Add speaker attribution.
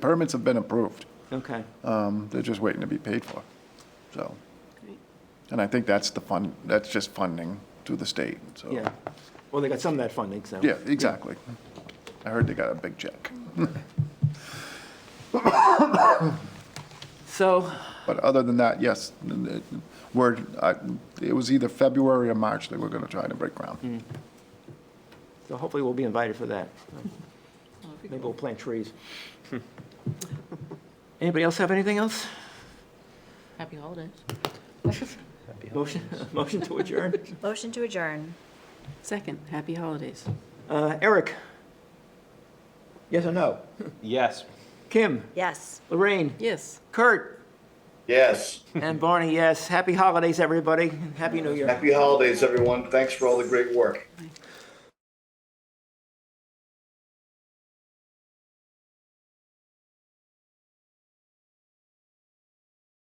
Speaker 1: Permits have been approved.
Speaker 2: Okay.
Speaker 1: Um, They're just waiting to be paid for, so. And I think that's the fund, that's just funding through the state, so.
Speaker 2: Yeah. Well, they got some of that funding, so.
Speaker 1: Yeah, exactly. I heard they got a big check.
Speaker 2: So,
Speaker 1: But other than that, yes, it- we're, I- it was either February or March they were going to try to break ground.
Speaker 2: so hopefully we'll be invited for that.
Speaker 3: Well, if you
Speaker 2: Maybe
Speaker 3: go-
Speaker 2: we'll plant trees. Anybody else have anything else?
Speaker 3: Happy holidays.
Speaker 2: Motion, motion to adjourn?
Speaker 4: Motion to adjourn.
Speaker 3: Second, happy holidays.
Speaker 2: Uh, Eric? Yes or no?
Speaker 5: Yes.
Speaker 2: Kim?
Speaker 4: Yes.
Speaker 2: Lorraine?
Speaker 3: Yes.
Speaker 2: Kurt?
Speaker 6: Yes.
Speaker 2: And Barney, yes. Happy holidays, everybody. Happy New Year.
Speaker 6: Happy holidays, everyone. Thanks for all the great work.